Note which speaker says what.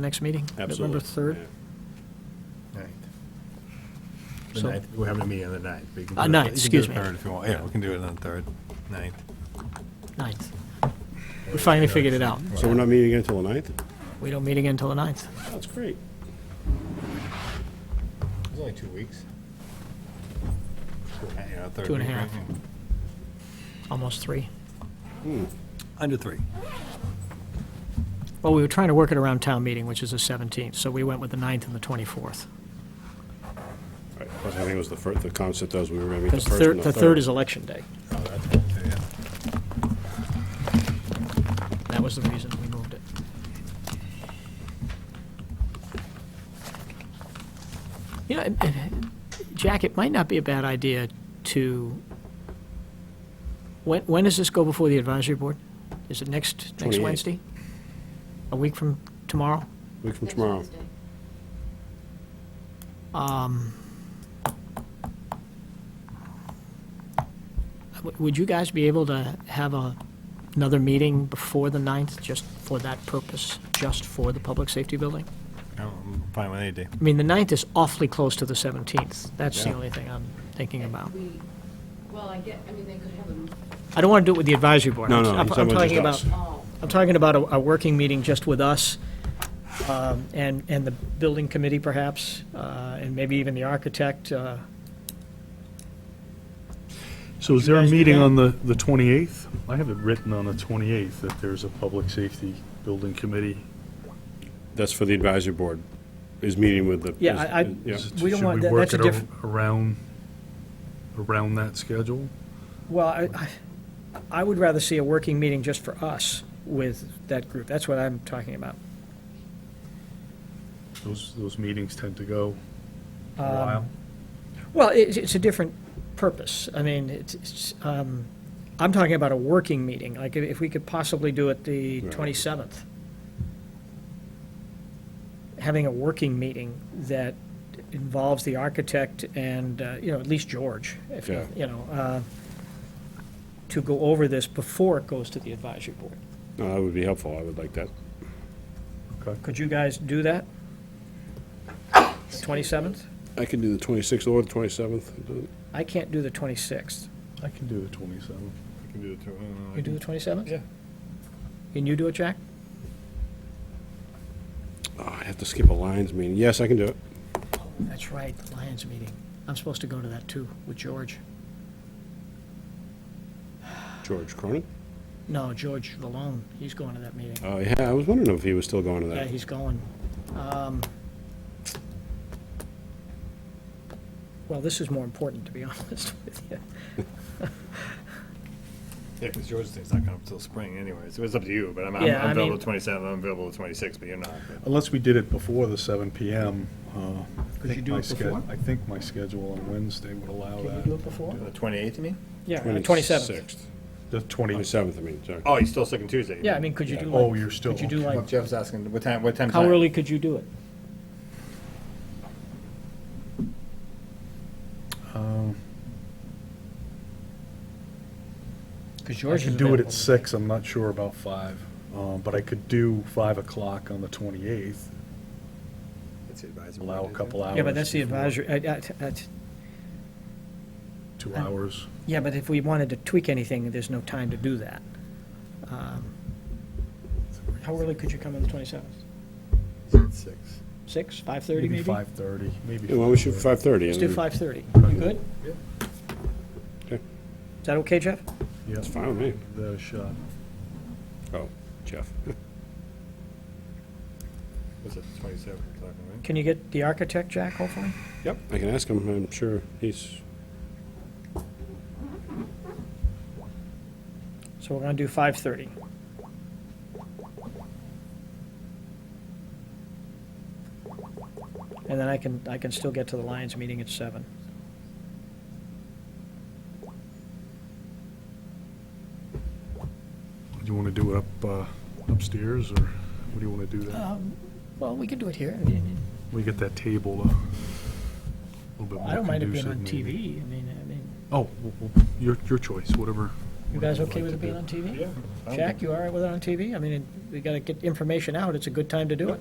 Speaker 1: next meeting?
Speaker 2: Absolutely.
Speaker 1: November 3rd?
Speaker 2: Yeah.
Speaker 3: Ninth. The
Speaker 1: So-
Speaker 3: ninth, we're having a meeting on the ninth. but you can
Speaker 1: Uh,
Speaker 3: do it-
Speaker 1: ninth,
Speaker 3: you can do
Speaker 1: excuse
Speaker 3: it
Speaker 1: me.
Speaker 3: Third if you want, yeah, we can do it on the third, ninth.
Speaker 1: 9th. We finally figured it out.
Speaker 2: So we're not meeting again until the 9th?
Speaker 1: We don't meet again until the 9th.
Speaker 2: That's great.
Speaker 3: It's only two weeks. Yeah, third
Speaker 1: Two and a
Speaker 3: week,
Speaker 1: half.
Speaker 3: right? Yeah.
Speaker 1: almost 3.
Speaker 3: Under three.
Speaker 1: Well, we were trying to work it around town meeting, which is the 17th, so we went with the 9th and the 24th.
Speaker 2: Right, Plus, I think it was the first, the concept was we were going to meet the
Speaker 1: Because the
Speaker 2: first and
Speaker 1: 3rd,
Speaker 2: the
Speaker 1: the 3rd is election day.
Speaker 3: Oh, that's good, too, yeah.
Speaker 1: That was the reason we moved it. You know, it- it- Jack, it might not be a bad idea to, when, when does this go before the advisory board? Is it next, next
Speaker 2: 28th.
Speaker 1: Wednesday? A week from tomorrow?
Speaker 2: Week from tomorrow.
Speaker 1: W- Would you guys be able to have a, another meeting before the 9th, just for that purpose, just for the public safety building?
Speaker 3: Oh, I'm fine with any day.
Speaker 1: I mean, the 9th is awfully close to the 17th. That's the
Speaker 3: Yeah.
Speaker 1: only thing I'm thinking about.
Speaker 4: We, well, I get, I mean, they could have them
Speaker 1: I don't want to do it with the advisory board.
Speaker 2: No,
Speaker 1: I'm-
Speaker 2: no,
Speaker 1: I'm
Speaker 2: he's
Speaker 1: I'm
Speaker 2: talking about
Speaker 1: talking about,
Speaker 2: just
Speaker 4: all.
Speaker 1: I'm talking about a, a working meeting just with us um, and, and the building committee perhaps, uh, and maybe even the architect. uh,
Speaker 5: So is there a
Speaker 1: guys do
Speaker 5: meeting
Speaker 1: that?
Speaker 5: on the, the 28th? I have it written on the 28th that there's a public safety building committee.
Speaker 2: That's for the advisory board, is meeting with the.
Speaker 1: Yeah, I- I-
Speaker 2: is- yeah.
Speaker 5: Is it-
Speaker 1: We don't want- that- that's a
Speaker 5: Should we work it ar- around, around that schedule?
Speaker 1: Well, I, I- I would rather see a working meeting just for us with that group. That's what I'm talking about.
Speaker 5: Those, those meetings tend to go a
Speaker 1: Um,
Speaker 5: while.
Speaker 1: Well, it, it's a different purpose. I mean, it's, it's, um, I'm talking about a working meeting, like if we could possibly do it the
Speaker 2: Right.
Speaker 1: 27th. Having a working meeting that involves the architect and, uh, you know, at least George, if,
Speaker 2: Yeah.
Speaker 1: you know, uh, to go over this before it goes to the advisory board.
Speaker 2: No, that would be helpful. I would like that.
Speaker 1: Could you guys do that? 27th?
Speaker 2: I can do the 26th or the 27th.
Speaker 1: I can't do the 26th.
Speaker 5: I can do the 27th.
Speaker 3: I can do the two- I don't know, I
Speaker 1: You do
Speaker 3: can-
Speaker 1: the uh, 27th?
Speaker 3: Yeah.
Speaker 1: Can you do it, Jack?
Speaker 2: Oh, I have to skip a Lions meeting. Yes, I can do it.
Speaker 1: That's right, the Lions meeting. I'm supposed to go to that too, with George.
Speaker 2: George Cronin?
Speaker 1: No, George Valone, he's going to that meeting.
Speaker 2: Oh, yeah, I was wondering if he was still going to
Speaker 1: Yeah,
Speaker 2: that.
Speaker 1: he's going. Um, Well, this is more important, to be honest with you.
Speaker 3: Yeah, because George thing's not coming up till spring anyways. It was up to you, but I'm, I'm
Speaker 1: Yeah, I
Speaker 3: I'm available
Speaker 1: mean-
Speaker 3: the 27th, I'm available the 26th, but you're not. but-
Speaker 5: Unless we did it before the 7 PM. uh, I
Speaker 1: Could
Speaker 5: think
Speaker 1: you do
Speaker 5: my
Speaker 1: it
Speaker 5: sched-
Speaker 1: before?
Speaker 5: I think my schedule on Wednesday would allow
Speaker 1: Can you do
Speaker 5: that.
Speaker 1: it before?
Speaker 3: The 28th, you mean?
Speaker 1: Yeah, uh, on the 27th.
Speaker 2: 26th.
Speaker 5: The 20,
Speaker 2: 27th, I mean, sorry.
Speaker 3: Oh, you're still second Tuesday. you
Speaker 1: Yeah, I
Speaker 3: mean.
Speaker 1: mean, could you do like?
Speaker 5: oh, you're still.
Speaker 1: Could you do
Speaker 3: Well,
Speaker 1: like,
Speaker 3: Jeff's asking, what time, what time's
Speaker 1: how
Speaker 3: that?
Speaker 1: early could you do it?
Speaker 5: Um,
Speaker 1: Because
Speaker 5: I
Speaker 1: George is
Speaker 5: could do it
Speaker 1: available.
Speaker 5: at six, I'm not sure about five, um, but I could do five o'clock on the twenty-eighth,
Speaker 3: That's the advisory
Speaker 5: allow a
Speaker 3: board,
Speaker 5: couple hours.
Speaker 1: Yeah, but that's the
Speaker 5: before-
Speaker 1: advisory, uh, I- I- I-
Speaker 5: Two hours.
Speaker 1: yeah, but if we wanted to tweak anything, there's no time to do that. Um, How early could you come on the 27th?
Speaker 3: isn't it? Six.
Speaker 1: Six, five thirty
Speaker 5: Maybe
Speaker 1: maybe?
Speaker 5: five-thirty, maybe.
Speaker 2: Yeah, Why don't we shoot
Speaker 5: 5:30.
Speaker 2: for 5:30?
Speaker 1: Let's do five thirty. You good?
Speaker 3: Yeah.
Speaker 2: Okay.
Speaker 1: Is that okay, Jeff?
Speaker 5: Yeah,
Speaker 2: It's fine with me.
Speaker 5: give that a shot.
Speaker 2: Oh, Jeff.
Speaker 3: What's it, 27th, we're talking, right?
Speaker 1: Can you get the architect, Jack, hopefully?
Speaker 2: Yep, I can ask him. I'm sure he's,
Speaker 1: So we're gonna do five thirty. And then I can, I can still get to the Lions meeting at seven.
Speaker 5: Do you wanna do it up, uh, upstairs, or what do you wanna do
Speaker 1: Uh.
Speaker 5: that?
Speaker 1: Um, Well, we can do it here.
Speaker 5: We get that table, uh, a little bit more conducive.
Speaker 1: I don't mind it being on
Speaker 5: maybe.
Speaker 1: TV. I mean, I mean,
Speaker 5: Oh, w- w- your, your choice, whatever.
Speaker 1: you guys
Speaker 5: whatever you'd
Speaker 1: okay
Speaker 5: like
Speaker 1: with
Speaker 5: to
Speaker 1: it being on
Speaker 5: do.
Speaker 1: TV?
Speaker 3: Yeah. fine.
Speaker 1: Jack, you all right with it on TV? I mean, we gotta get information out. It's a good time to do it.